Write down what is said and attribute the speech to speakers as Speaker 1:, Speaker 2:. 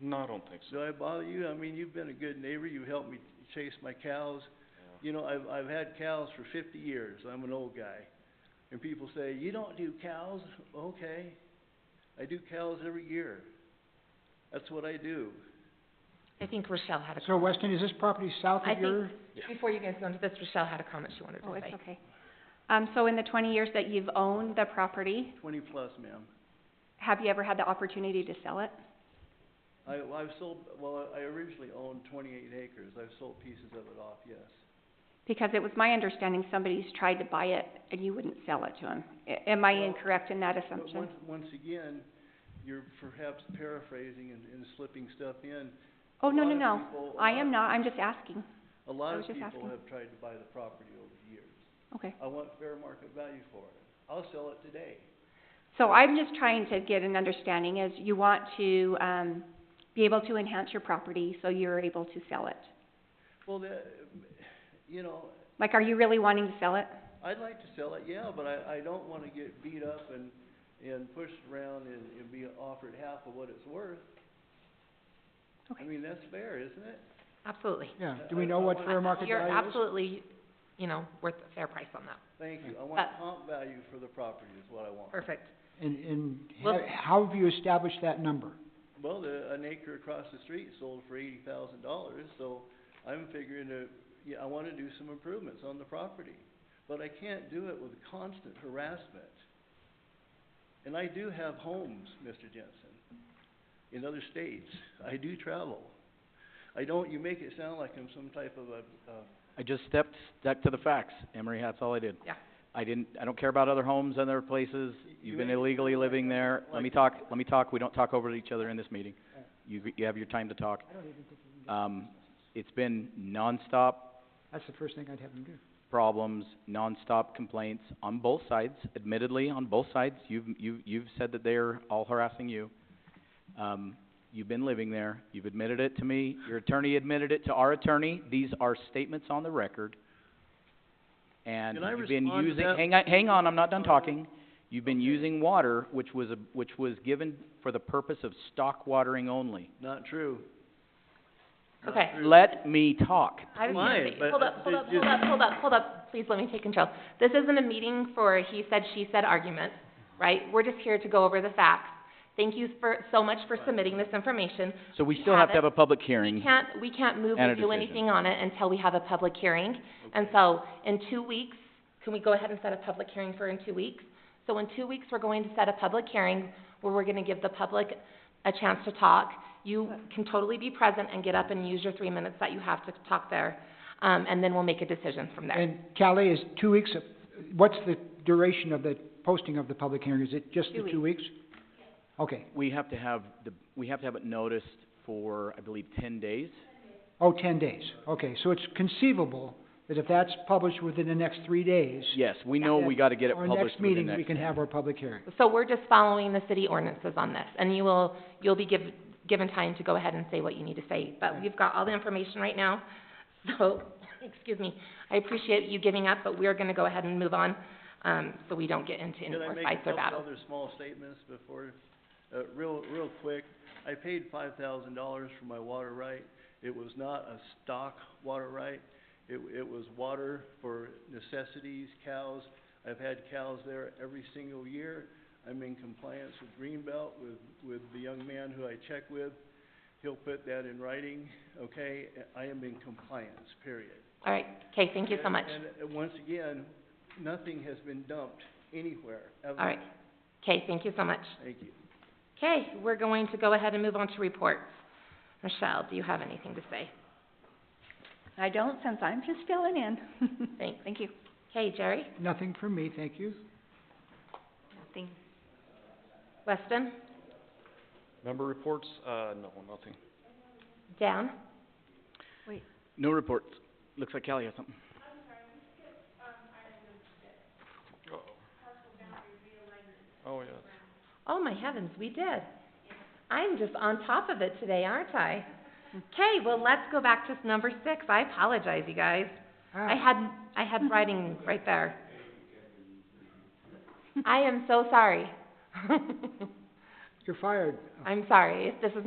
Speaker 1: No, I don't think so.
Speaker 2: Do I bother you? I mean, you've been a good neighbor, you helped me chase my cows. You know, I've, I've had cows for fifty years, I'm an old guy. And people say, you don't do cows? Okay. I do cows every year. That's what I do.
Speaker 3: I think Rochelle had a
Speaker 4: So
Speaker 3: comment.
Speaker 4: Weston, is this property south
Speaker 3: I
Speaker 4: of
Speaker 3: think-
Speaker 4: your?
Speaker 3: Before you guys go into this, Rochelle had a comment she wanted to
Speaker 5: Oh,
Speaker 3: make.
Speaker 5: it's okay. Um, so in the twenty years that you've owned the property,
Speaker 2: Twenty plus, ma'am.
Speaker 5: have you ever had the opportunity to sell it?
Speaker 2: I, I've sold, well, I originally owned twenty-eight acres, I've sold pieces of it off, yes.
Speaker 5: Because it was my understanding somebody's tried to buy it and you wouldn't sell it to them. am I
Speaker 2: Well,
Speaker 5: incorrect in that
Speaker 2: But
Speaker 5: assumption?
Speaker 2: once, once again, you're perhaps paraphrasing and, and slipping stuff in.
Speaker 5: Oh,
Speaker 2: a
Speaker 5: no,
Speaker 2: lot
Speaker 5: no,
Speaker 2: of
Speaker 5: no.
Speaker 2: people- a
Speaker 5: I
Speaker 2: lot
Speaker 5: am
Speaker 2: of-
Speaker 5: not, I'm just asking.
Speaker 2: A lot
Speaker 5: I
Speaker 2: of
Speaker 5: was just
Speaker 2: people
Speaker 5: asking.
Speaker 2: have tried to buy the property over the years.
Speaker 5: Okay.
Speaker 2: I want fair market value for it. I'll sell it today.
Speaker 5: So I'm just trying to get an understanding is you want to, um, be able to enhance your property so you're able to sell it.
Speaker 2: Well, the, you know,
Speaker 5: Like, are you really wanting to sell it?
Speaker 2: I'd like to sell it, yeah, but I, I don't wanna get beat up and, and pushed around and, and be offered half of what it's worth. I
Speaker 5: Okay.
Speaker 2: mean, that's fair, isn't it?
Speaker 3: Absolutely.
Speaker 4: Yeah,
Speaker 2: I-
Speaker 4: do we
Speaker 2: I-
Speaker 4: know
Speaker 2: I
Speaker 4: what
Speaker 2: want-
Speaker 4: fair market
Speaker 3: You're
Speaker 4: value is?
Speaker 3: absolutely, you know, worth a fair price on that.
Speaker 2: Thank you. I want
Speaker 3: Uh,
Speaker 2: comp value for the property is what I want.
Speaker 3: Perfect.
Speaker 4: And, and
Speaker 3: Well-
Speaker 4: ha- how have you established that number?
Speaker 2: Well, the, an acre across the street sold for eighty thousand dollars, so I'm figuring to, yeah, I wanna do some improvements on the property. But I can't do it with constant harassment. And I do have homes, Mr. Jensen, in other states. I do travel. I don't, you make it sound like I'm some type of a, uh,
Speaker 6: I just stepped, stuck to the facts, Emery, that's all I did.
Speaker 3: Yeah.
Speaker 6: I didn't, I don't care about other homes and other places,
Speaker 2: you
Speaker 6: you've been
Speaker 2: made it sound
Speaker 6: illegally
Speaker 2: like
Speaker 6: living
Speaker 2: I-
Speaker 6: there, let me
Speaker 2: like-
Speaker 6: talk, let me talk, we don't talk over each other in this meeting. You, you have your time to talk. Um, it's been nonstop
Speaker 4: That's the first thing I'd have them do.
Speaker 6: problems, nonstop complaints on both sides, admittedly, on both sides. You've, you've, you've said that they're all harassing you. Um, you've been living there, you've admitted it to me, your attorney admitted it to our attorney. These are statements on the record. And
Speaker 2: Can I
Speaker 6: you've been
Speaker 2: respond to
Speaker 6: using,
Speaker 2: that?
Speaker 6: hang on, hang on, I'm not done
Speaker 2: Sorry.
Speaker 6: talking. You've been
Speaker 2: Okay.
Speaker 6: using water, which was a, which was given for the purpose of stock watering only.
Speaker 2: not true. Not
Speaker 3: Okay.
Speaker 2: true.
Speaker 6: Let me talk.
Speaker 3: I was
Speaker 2: Why?
Speaker 3: gonna say-
Speaker 2: But
Speaker 3: hold up, hold
Speaker 2: it
Speaker 3: up, hold up, hold up, hold up, please let me take control. This isn't a meeting for a he said, she said argument, right? We're just here to go over the facts. Thank you for, so much for submitting this information.
Speaker 6: So we
Speaker 3: We
Speaker 6: still
Speaker 3: have
Speaker 6: have to have
Speaker 3: it.
Speaker 6: a public
Speaker 3: We
Speaker 6: hearing.
Speaker 3: can't, we can't move
Speaker 6: And
Speaker 3: or
Speaker 6: a
Speaker 3: do
Speaker 6: decision.
Speaker 3: anything on it until we have a public hearing. And so, in two weeks, can we go ahead and set a public hearing for in two weeks? So in two weeks, we're going to set a public hearing where we're gonna give the public a chance to talk. You can totally be present and get up and use your three minutes that you have to talk there, um, and then we'll make a decision from there.
Speaker 4: And Callie, is two weeks, of- what's the duration of the posting of the public hearing? Is it just
Speaker 5: Two
Speaker 4: the two weeks? Okay.
Speaker 6: We have to have the, we have to have it noticed for, I believe, ten days.
Speaker 4: Oh, ten days. Okay, so it's conceivable that if that's published within the next three days,
Speaker 6: Yes, we know we gotta get it
Speaker 4: our next
Speaker 6: published within
Speaker 4: meeting,
Speaker 6: next
Speaker 4: we can
Speaker 6: ten.
Speaker 4: have our public hearing.
Speaker 3: So we're just following the city ordinances on this, and you will, you'll be giv- given time to go ahead and say what you need to say, but we've got all the information right now, so, excuse me, I appreciate you giving up, but we're gonna go ahead and move on, um, so we don't get into any
Speaker 2: Can I
Speaker 3: more
Speaker 2: make
Speaker 3: fights
Speaker 2: a
Speaker 3: or
Speaker 2: couple
Speaker 3: battles.
Speaker 2: other small statements before, uh, real, real quick? I paid five thousand dollars for my water right. It was not a stock water right. It, it was water for necessities, cows. I've had cows there every single year. I'm in compliance with Greenbelt, with, with the young man who I check with. He'll put that in writing, okay? I am in compliance, period.
Speaker 3: All right, okay, thank you so
Speaker 2: And-
Speaker 3: much.
Speaker 2: And, uh once again, nothing has been dumped anywhere, ever.
Speaker 3: All right, okay, thank you so much.
Speaker 2: Thank you.
Speaker 3: Okay, we're going to go ahead and move on to reports. Michelle, do you have anything to say?
Speaker 5: I don't, since I'm just filling in.
Speaker 3: Thanks.
Speaker 5: Thank you.
Speaker 3: Okay, Jerry,
Speaker 4: Nothing from me, thank you.
Speaker 5: Nothing.
Speaker 3: Weston,
Speaker 1: Member reports, uh, no, nothing.
Speaker 3: Dan?
Speaker 6: No reports. Looks like Callie has something.
Speaker 1: Uh-oh. Oh, yeah.
Speaker 3: Oh, my heavens, we did. I'm just on top of it today, aren't I? Okay, well, let's go back to number six. I apologize, you guys. I
Speaker 4: Ah,
Speaker 3: had, I had writing right there. I am so sorry.
Speaker 4: you're fired.
Speaker 3: I'm sorry. This is